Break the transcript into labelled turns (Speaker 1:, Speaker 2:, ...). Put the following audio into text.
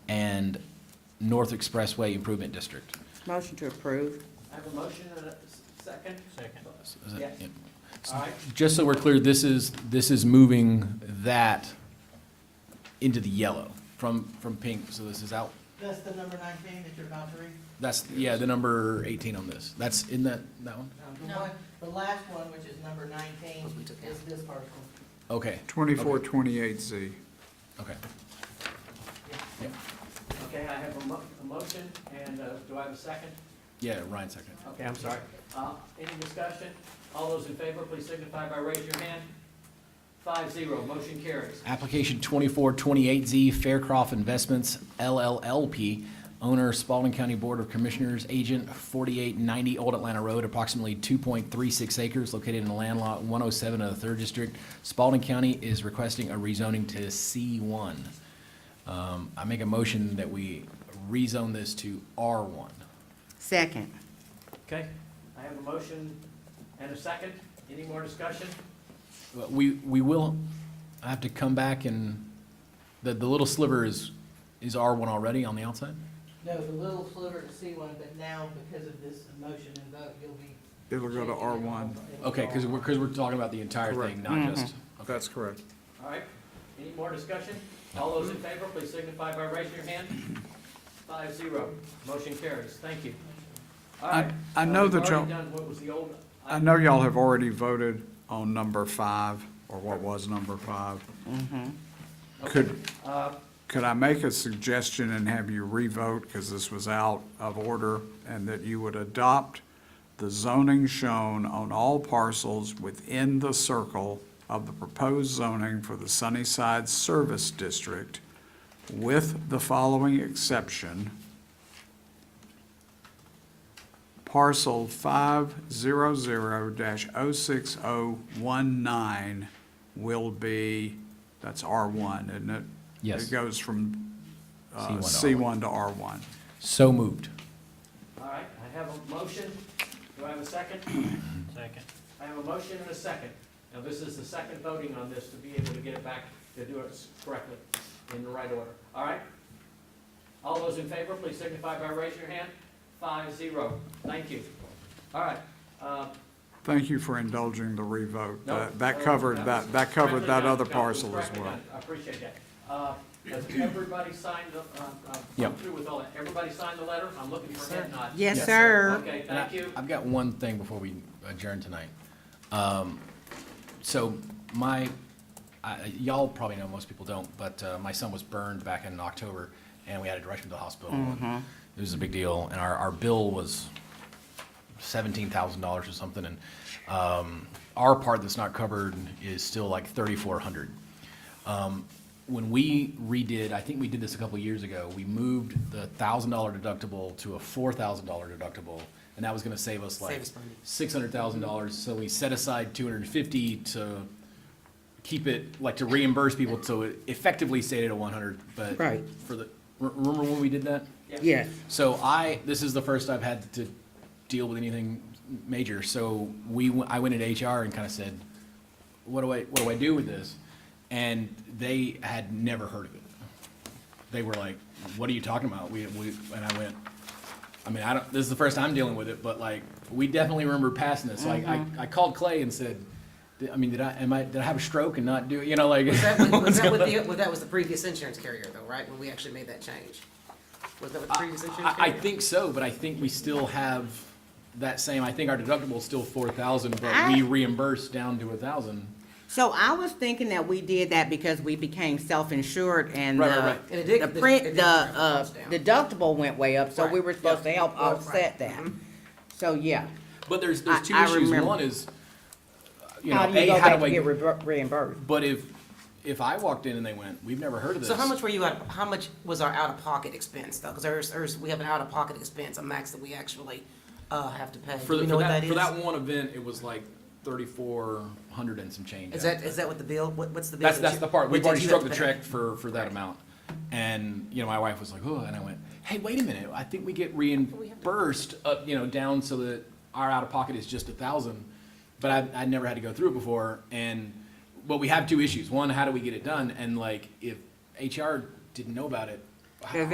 Speaker 1: and North Expressway Improvement District.
Speaker 2: Motion to approve.
Speaker 3: I have a motion and a s- second. Second.
Speaker 1: Is that-
Speaker 3: Yes.
Speaker 1: yep.
Speaker 3: All right,
Speaker 1: Just so we're clear, this is, this is moving that into the yellow from, from pink, so this is out.
Speaker 3: that's the number nineteen that you're about to read.
Speaker 1: That's, yeah, the number eighteen on this. That's in that, that one?
Speaker 3: Um, The
Speaker 4: No.
Speaker 3: one, the last one, which is number nineteen, is this article.
Speaker 1: Okay,
Speaker 5: Twenty-four twenty-eight Z.
Speaker 1: okay.
Speaker 3: Yeah.
Speaker 1: Yeah,
Speaker 3: Okay, I have a mo- a motion, and uh, do I have a second?
Speaker 1: yeah, Ryan second.
Speaker 3: Okay, I'm sorry. Uh, Any discussion? All those in favor, please signify by raise your hand. Five zero, motion carries.
Speaker 1: Application twenty-four twenty-eight Z Faircroft Investments LLLP, owner Spalding County Board of Commissioners, agent forty-eight ninety Old Atlanta Road, approximately two point three six acres, located in land lot one oh seven of the third district. Spalding County is requesting a rezoning to C one. Um, I make a motion that we rezone this to R one.
Speaker 2: Second.
Speaker 3: Okay, I have a motion and a second. Any more discussion?
Speaker 1: Well, We, we will have to come back and, the, the little sliver is, is R1 already on the outside?
Speaker 6: No, the little sliver to C one, but now because of this motion and vote, you'll be.
Speaker 5: It'll go to R one.
Speaker 1: Okay, because we're, because we're talking about the entire thing,
Speaker 5: Correct.
Speaker 1: not just. okay.
Speaker 5: That's correct.
Speaker 3: All right, any more discussion? All those in favor, please signify by raising your hand. Five zero, motion carries, thank you. All
Speaker 5: I-
Speaker 3: right.
Speaker 5: I
Speaker 3: Uh,
Speaker 5: know
Speaker 3: we've
Speaker 5: that y'all-
Speaker 3: already done what was the old
Speaker 5: I know y'all have already voted on number five, or what was number five. Could,
Speaker 3: Uh,
Speaker 5: could I make a suggestion and have you revote, because this was out of order, and that you would adopt the zoning shown on all parcels within the circle of the proposed zoning for the Sunnyside Service District with the following exception. Parcel five zero zero dash oh six oh one nine will be, that's R one, isn't it?
Speaker 1: Yes.
Speaker 5: It goes from uh,
Speaker 1: C1
Speaker 5: C
Speaker 1: to
Speaker 5: one to R one.
Speaker 1: So moved.
Speaker 3: All right, I have a motion. Do I have a second? Second. I have a motion and a second. Now, this is the second voting on this to be able to get it back, to do it correctly, in the right order. All right? All those in favor, please signify by raising your hand. Five, zero. Thank you. All right. uh,
Speaker 5: Thank you for indulging the revote.
Speaker 3: no,
Speaker 5: That- That
Speaker 3: no,
Speaker 5: covered,
Speaker 3: no,
Speaker 5: that, that
Speaker 3: it's
Speaker 5: covered
Speaker 3: correctly
Speaker 5: that
Speaker 3: done,
Speaker 5: other
Speaker 3: Councilman,
Speaker 5: parcel as
Speaker 3: correctly
Speaker 5: well.
Speaker 3: done. I appreciate that. Uh, Has everybody signed, the- uh, uh, come
Speaker 1: Yep.
Speaker 3: through with all that? Everybody signed the letter? I'm looking for a head nod.
Speaker 2: Yes,
Speaker 1: Yes,
Speaker 2: sir.
Speaker 3: Okay,
Speaker 1: And I-
Speaker 3: thank you.
Speaker 1: I've got one thing before we adjourn tonight. Um, So my, I- y'all probably know, most people don't, but uh, my son was burned back in October, and we had to rush him to the hospital. and It was a big deal, and our, our bill was seventeen thousand dollars or something, and um, our part that's not covered is still like thirty-four hundred. Um, When we redid, I think we did this a couple years ago, we moved the thousand dollar deductible to a four thousand dollar deductible, and that was gonna save us like
Speaker 4: Save us money.
Speaker 1: six hundred thousand dollars, so we set aside two hundred and fifty to keep it, like to reimburse people, so it effectively stayed at a one hundred, but
Speaker 2: Right.
Speaker 1: for the, re- remember when we did that?
Speaker 2: Yes.
Speaker 1: So I, this is the first I've had to deal with anything major. So we, w- I went into HR and kind of said, what do I, what do I do with this? And they had never heard of it. They were like, what are you talking about? We, we, and I went, I mean, I don't, this is the first I'm dealing with it, but like, we definitely remember passing this. Like, I, I called Clay and said, "Did- I mean, did I, am I, did I have a stroke and not do, it?" you know, like.
Speaker 4: Was that, with-
Speaker 1: what's
Speaker 4: was that with
Speaker 1: going on?
Speaker 4: the, well, that was the previous insurance carrier though, right, when we actually made that change? Was that with the previous insurance
Speaker 1: I, I
Speaker 4: carrier?
Speaker 1: think so, but I think we still have that same, I think our deductible's still four thousand, but
Speaker 2: I-
Speaker 1: we reimburse down to a thousand.
Speaker 2: So I was thinking that we did that because we became self-insured and
Speaker 1: Right, right, right.
Speaker 2: the,
Speaker 4: And it
Speaker 2: the
Speaker 4: did- it
Speaker 2: print,
Speaker 4: did
Speaker 2: the,
Speaker 4: bring
Speaker 2: uh,
Speaker 4: costs down.
Speaker 2: deductible went way up, so we
Speaker 4: Right.
Speaker 2: were supposed to
Speaker 4: Yeah.
Speaker 2: help
Speaker 4: Right. Mm-hmm.
Speaker 2: offset that. So, yeah.
Speaker 1: But there's, there's
Speaker 2: I-
Speaker 1: two
Speaker 2: I
Speaker 1: issues.
Speaker 2: remember.
Speaker 1: One is, uh, you
Speaker 2: How
Speaker 1: know,
Speaker 2: do you
Speaker 1: A,
Speaker 2: go
Speaker 1: how
Speaker 2: back
Speaker 1: do
Speaker 2: and get
Speaker 1: I,
Speaker 2: re- reimbursed?
Speaker 1: but if, if I walked in and they went, we've never heard of this.
Speaker 4: So how much were you out, how much was our out-of-pocket expense though? Cause there's, there's, we have an out-of-pocket expense, a max that we actually, uh, have to pay.
Speaker 1: For,
Speaker 4: Do
Speaker 1: the-
Speaker 4: we
Speaker 1: for
Speaker 4: know what
Speaker 1: that,
Speaker 4: that is?
Speaker 1: for that one event, it was like thirty-four hundred and some change.
Speaker 4: Is that, is that what the bill, what, what's the bill?
Speaker 1: That's,
Speaker 4: that
Speaker 1: that's
Speaker 4: you-
Speaker 1: the part.
Speaker 4: what
Speaker 1: We've
Speaker 4: did
Speaker 1: already
Speaker 4: you
Speaker 1: struck
Speaker 4: have
Speaker 1: the
Speaker 4: to pay?
Speaker 1: check for, for that amount. And, you know, my wife was like, oh, and I went, hey, wait a minute, I think we get reimbursed up, you know, down so that our out-of-pocket is just a thousand. But I, I'd never had to go through it before. And, but we have two issues. One, how do we get it done? And like, if HR didn't know about it,
Speaker 2: Yeah,
Speaker 1: how,
Speaker 2: they-